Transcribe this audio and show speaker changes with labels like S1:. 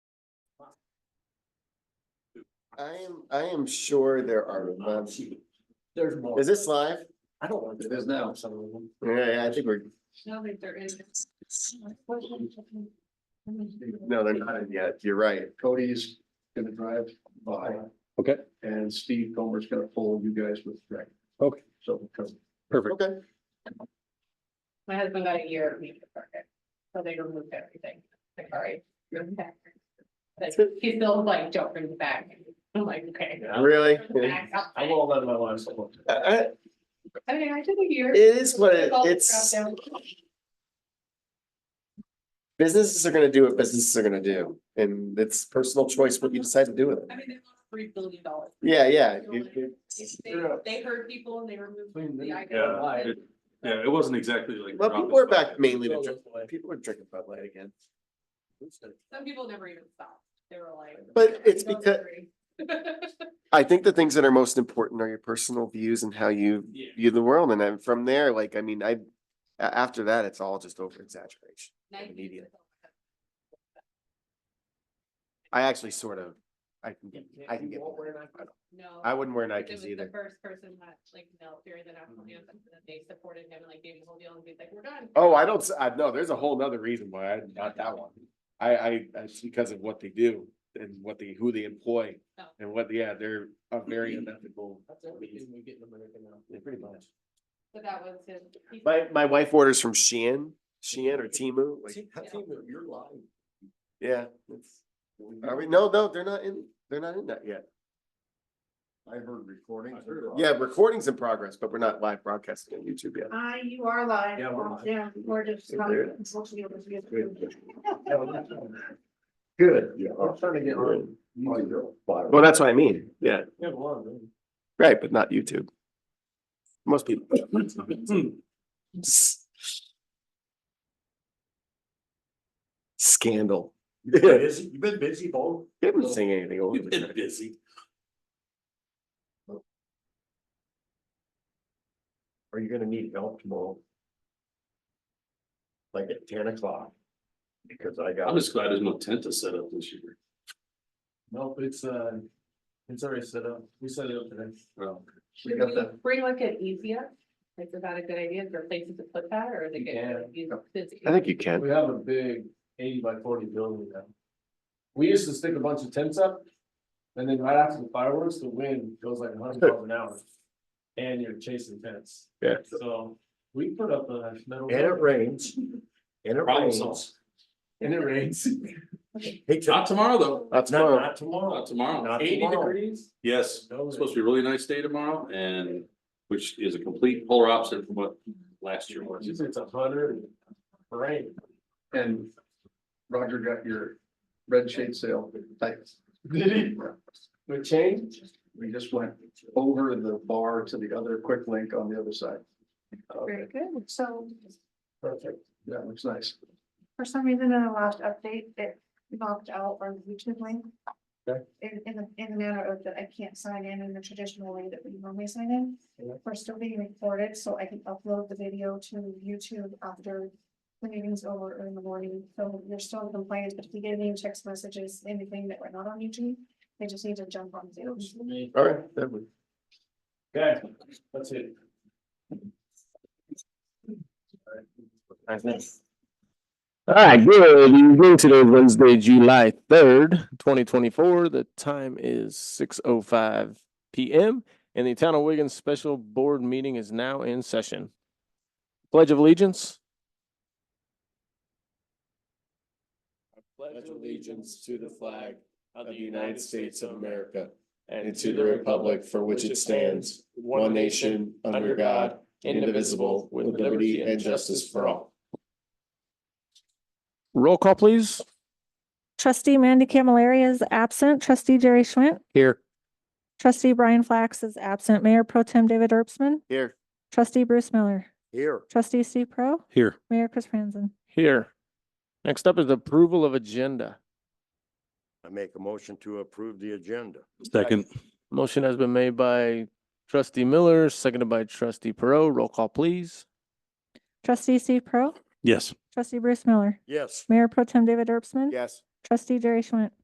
S1: I am, I am sure there are, um,
S2: There's more.
S1: is this live?
S2: I don't want to. There's now some of them.
S1: Yeah, I think we're,
S3: No, that there is.
S1: no, they're not in yet. You're right.
S2: Cody's gonna drive by
S4: Okay,
S2: and Steve Comer's gonna pull you guys with Greg.
S4: Okay.
S2: So. because-
S4: perfect.
S1: Okay.
S3: My husband got a year of leave to park it, so they removed everything. Like, all right, you're back. Like, he's still like, don't bring it back. I'm like, okay.
S1: Really?
S3: Back up.
S2: I won't let my wife.
S5: Uh,
S2: so-
S1: I- I-
S3: I mean, I took a year.
S1: It is what it-
S3: All the
S1: it's,
S3: crap down.
S1: businesses are gonna do what businesses are gonna do. And it's personal choice what you decide to do with it.
S3: I mean, they lost three billion dollars.
S1: Yeah, yeah. you- you-
S3: They, they heard people and they removed the
S5: Yeah,
S3: icon.
S2: Bye.
S5: it, yeah, it wasn't exactly like.
S1: Well, people
S5: Rockefeller.
S1: are back mainly to drink.
S2: It's
S1: People are drinking Bud Light again.
S3: Some people never even stopped. They were like.
S1: But it's
S3: "Don't
S1: because-
S3: worry."
S1: I think the things that are most important are your personal views and how you
S5: Yeah.
S1: view the world. And then from there, like, I mean, I, a- after that, it's all just over exaggeration.
S3: Nike
S1: Immediate.
S3: is-
S1: I actually sort of, I can get, I can get,
S3: No.
S1: I wouldn't wear
S3: Like, it
S1: Nikes
S3: was
S1: either.
S3: The first person that like knelt during the national
S2: Mm-hmm.
S3: anthem, and then they supported him and like gave him the whole deal and he's like, we're done.
S1: Oh, I don't, s- I know, there's a whole nother reason why I, not that one. I, I, it's because of what they do and what they, who they employ.
S3: Oh.
S1: And what, yeah, they're a very unethical.
S2: That's everything we get in America now.
S1: Yeah, pretty much.
S3: But that was his. he-
S1: My, my wife orders from Shein, Shein or Temu, like,
S2: See, I think that you're lying.
S1: yeah. it's- Are we, no, no, they're not in, they're not in that yet.
S2: I heard recordings.
S1: Yeah, recording's in progress, but we're not live broadcasting on YouTube yet.
S6: I, you are live.
S2: Yeah, we're live.
S6: Yeah, we're just.
S1: Yeah, there it
S2: Good, yeah, I'm trying to get on.
S1: Well, that's what I mean, yeah,
S2: Yeah, well, then.
S1: right, but not YouTube. Most people. Scandal.
S2: You've been busy, you've been busy, Bo.
S1: They haven't seen anything over
S5: You've been
S1: there.
S5: busy.
S2: Are you gonna need help tomorrow? Like at ten o'clock? Because I
S5: I'm
S2: got.
S5: just glad there's no tent to set up this year.
S2: Nope, it's, uh, it's already set up. We set it up today.
S5: Well,
S3: Should
S2: got
S3: we
S2: that.
S3: bring like an easier? Like, is that a good idea? Is there places to put that or is it?
S2: Yeah.
S3: good? He's busy.
S1: I think you can.
S2: We have a big eighty by forty building now. We used to stick a bunch of tents up. And then right after the fireworks, the wind goes like hundred miles an hour. And you're chasing tents.
S1: Yeah.
S2: So we put up a metal.
S7: And it rains. And it
S5: problem
S7: rains.
S5: solved.
S2: And it rains.
S7: Hey, Tim,
S5: Not tomorrow, though.
S1: That's
S7: Not,
S1: tomorrow.
S7: not tomorrow.
S5: Not tomorrow.
S7: Not
S5: Eighty
S7: tomorrow.
S5: degrees. Yes,
S7: No
S5: it's supposed to be a really nice day tomorrow and which is a complete polar opposite from what last year was.
S2: Usually it's a hundred and rain.
S8: And Roger got your red shade sale, thanks.
S2: Did it? We changed?
S8: We just went over the bar to the other quick link on the other side.
S6: Very good. So
S2: Perfect.
S8: That looks nice.
S6: for some reason in the last update, it locked out our YouTube link.
S2: Okay.
S6: In, in the, in the manner of that I can't sign in in the traditional way that we normally sign in.
S2: Yeah.
S6: We're still being recorded, so I can upload the video to YouTube after the meeting's over or in the morning. So you're still in compliance, but if you get any text messages, anything that we're not on YouTube, they just need to jump on Zoom.
S1: All right, then we-
S2: Okay, that's it.
S4: All right, good evening. Today is Wednesday, July third, twenty twenty-four. The time is six oh five PM. And the Town of Wigan Special Board Meeting is now in session. Pledge of Allegiance.
S1: pledge allegiance to the flag of the United States of America and to the republic for which it stands, one nation, under God, indivisible, with liberty and justice for all.
S4: Roll call, please.
S9: Trustee Mandy Camilleri is absent. Trustee Jerry Schwint.
S4: Here.
S9: Trustee Brian Flax is absent. Mayor Pro Tem David Erpsman.
S1: Here.
S9: Trustee Bruce Miller.
S7: Here.
S9: Trustee Steve Pro.
S4: Here.
S9: Mayor Chris Franzen.
S4: Here. Next up is approval of agenda.
S7: I make a motion to approve the agenda.
S5: Second.
S4: Motion has been made by trustee Miller, seconded by trustee Perot. Roll call, please.
S9: Trustee Steve Pro.
S5: Yes.
S9: Trustee Bruce Miller.
S7: Yes.
S9: Mayor Pro Tem David Erpsman.
S1: Yes.
S9: Trustee Jerry Schwint.